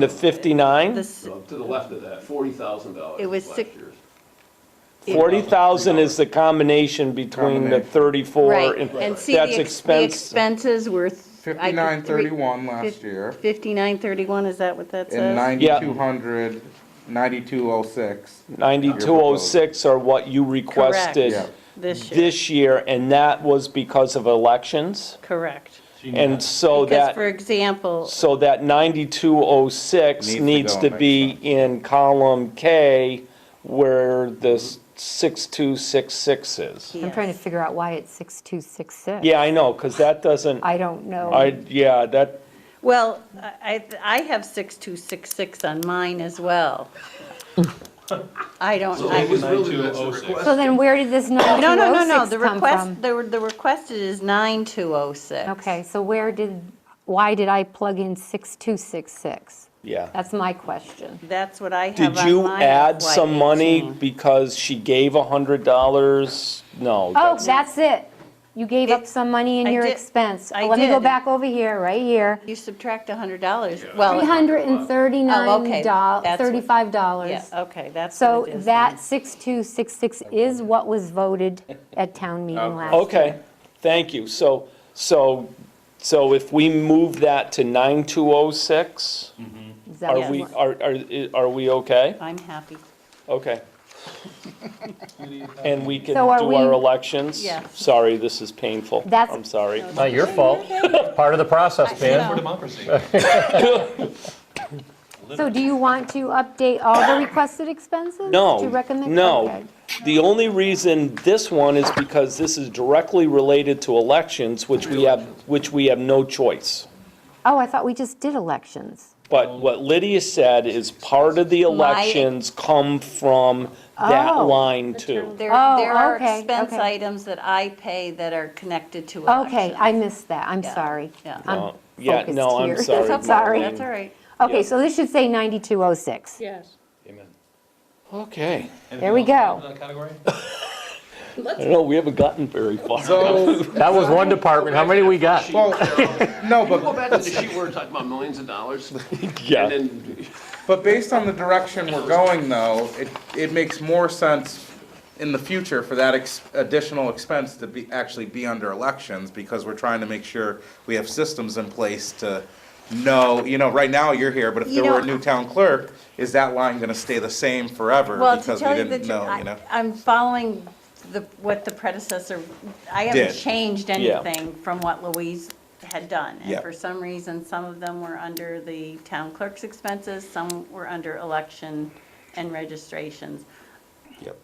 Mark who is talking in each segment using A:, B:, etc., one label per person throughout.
A: The 59?
B: This,
C: So to the left of that, forty thousand dollars
B: It was
C: was last
B: six-
C: year's.
A: 40,000 is the combination between the 34
B: right,
A: and,
B: and see,
A: that's
B: the ex- the
A: expense.
B: expenses were. th- I
D: Fifty-nine
B: could re-
D: thirty-one last
B: fif-
D: year,
B: 5931, is that what that
D: and
B: says?
D: ninety-two hundred, ninety-two oh six.
A: 9206 are what you requested
D: Yeah.
B: This year,
A: this year, and that was because of elections?
B: correct.
A: And so
B: Because,
A: Oh, that,
B: for example,
A: so that 9206
D: Needs to
A: needs
D: go
A: to
D: next
A: be
D: time.
A: in column K where the s- 6266 is.
B: Yeah.
E: I'm trying to figure out why it's 6266.
A: Yeah, I know, because that doesn't,
E: I don't know.
A: I, yeah, that,
B: well, I, I I have 6266 on mine as well. I don't,
C: So
B: I.
C: it was really, that's the
F: 9206.
C: request.
E: So then where did this
B: No, no, no, no, the
E: 9206 come
B: request,
E: from?
B: the, the requested is 9206.
E: Okay, so where did, why did I plug in 6266?
A: yeah.
E: That's my question.
B: That's what I have on
A: Did
B: mine.
A: you add
B: FY18.
A: some money because she gave $100? No.
E: Oh,
A: that's-
E: that's it. You gave up
B: It-
E: some money in
B: I
E: your
B: did-
E: expense.
B: I
E: Let me go
B: did.
E: back over here, right here.
B: You subtract $100,
A: uh,
B: well,
E: $339,
B: Oh,
E: doll-
B: okay, that's what- yeah,
E: $35.
B: okay, that's
E: So
B: what it is. then.
E: that 6266 is what was voted at town meeting last year.
A: Uh, Okay, thank you. So, so, so if we move that to 9206,
E: Is that
A: are
E: what-
A: we, are, are, are we okay?
B: I'm happy.
A: Okay. And we can do
E: So are we-
A: our elections?
B: Yes.
A: Sorry, this is painful.
E: That's-
A: I'm sorry.
G: Not your fault. It's Part of the process,
F: For
G: man.
F: democracy.
E: So do you want to update all the requested expenses?
A: No,
E: To recommend?
A: no.
E: Okay.
A: The only reason this one is because this is directly related to elections, which we have, which we have no choice.
E: Oh, I thought we just did elections.
A: But what Lydia said is part of the elections come from that
E: Oh.
A: line too.
B: There,
E: Oh,
B: there are
E: okay,
B: expense
E: okay.
B: items that I pay that are connected to elections.
E: Okay, I missed that, I'm
B: Yeah,
E: sorry.
B: yeah.
E: I'm
A: Uh, yeah,
E: focused
A: no, I'm
E: here.
A: sorry,
B: That's
E: Sorry.
B: okay, that's all right.
E: Okay, so this should say 9206.
H: Yes.
A: Okay.
E: There we go.
F: That category?
A: I don't know, we haven't gotten very far.
D: So,
G: That was one department. How many we got?
D: well, no,
C: Can you go
D: but,
C: back to the sheet where we're talking about millions of dollars? And
A: Yeah,
C: then,
D: but based on the direction we're going though, it, it makes more sense in the future for that ex- additional expense to be, actually be under elections, because we're trying to make sure we have systems in place to know, you know, right now you're here, but if
B: You
D: there were a
B: know-
D: new town clerk, is that line gonna stay the same forever?
B: Well, to
D: Because we
B: tell you the
D: didn't
B: truth,
D: know, you know?
B: I- I'm following the, what the predecessor, I haven't
D: Did.
B: changed
A: Yeah.
B: anything from what Louise had done. And
D: Yeah.
B: for some reason, some of them were under the town clerk's expenses, some were under election and registrations.
D: Yep.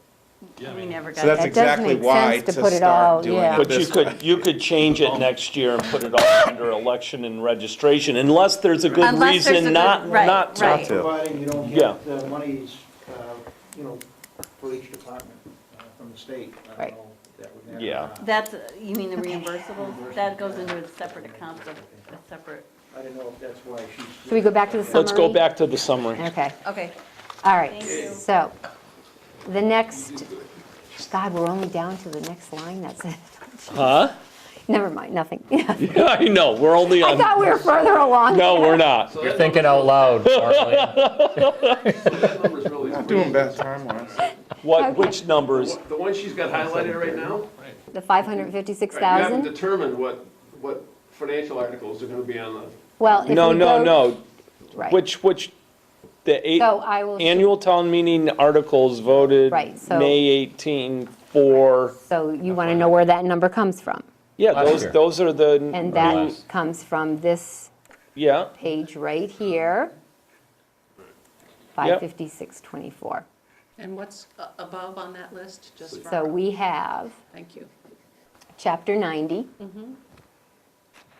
F: Yeah, I
B: We
F: mean,
B: never got
D: So that's
B: that.
E: That does
D: exactly
E: make
D: why
E: sense
D: to
E: to put it all,
D: start doing
E: yeah.
D: it
A: but you
D: this
A: could, you could change it next year and put it all under election and registration, unless there's a good
B: Unless there's a
A: reason
B: good-
A: not,
B: right,
A: not to.
B: right.
D: too.
H: Providing you don't
A: Yeah.
H: get the monies, uh, you know, for each department uh, from the state. I
E: Right.
H: don't know if that would matter or
A: Yeah.
H: not.
B: That's, you mean the reimbursables? That goes into a separate account, a a separate,
H: I don't know if that's why she's.
E: Should we go back to the summary?
A: Let's go back to the summary.
E: Okay,
B: okay.
E: all right.
B: Thank you.
E: So, the next, God, we're only down to the next line, that's it.
A: Huh?
E: Never mind, nothing.
A: I know, we're only
E: I
A: on,
E: thought we were further along.
A: Um, no, we're not.
C: so
G: You're
C: that
G: thinking out loud, Marlene.
C: number's really.
D: Not doing bad time-wise.
A: What, which numbers?
C: The one she's got highlighted right now? right, You
E: The
C: haven't
E: 556,000?
C: determined what, what financial articles are gonna be on the.
E: Well, if we
A: No, no,
E: go-
A: no,
E: Right.
A: which, which, the eight,
E: So I will,
A: annual town meeting articles voted
E: Right, so-
A: May 18 for,
E: so you want to know where that number comes from?
A: yeah,
G: Last
A: those,
G: year.
A: those are the,
E: And that
G: Last.
E: comes from this
A: yeah,
E: page right here, 55624.
I: And what's a- above on that list, just for,
E: So we have
I: thank you. Mm-hmm.
E: Chapter 90.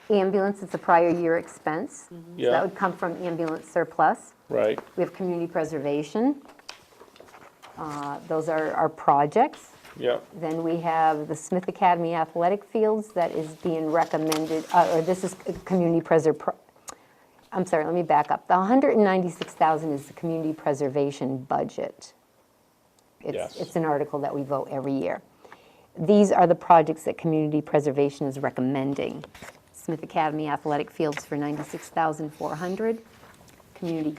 E: Ambulance, it's a prior year expense. So
A: Yeah.
E: That would come from ambulance surplus.
A: right.
E: We have community preservation. Uh, Those are our projects.
A: Yeah,
E: Then we have the Smith Academy Athletic Fields that is being recommended, uh, or this is c- community preser, I'm sorry, let me back up. The 196,000 is the community preservation budget. It's,
A: Yes.
E: it's an article that we vote every year. These are the projects that community preservation is recommending. Smith Academy Athletic Fields for 96,400, community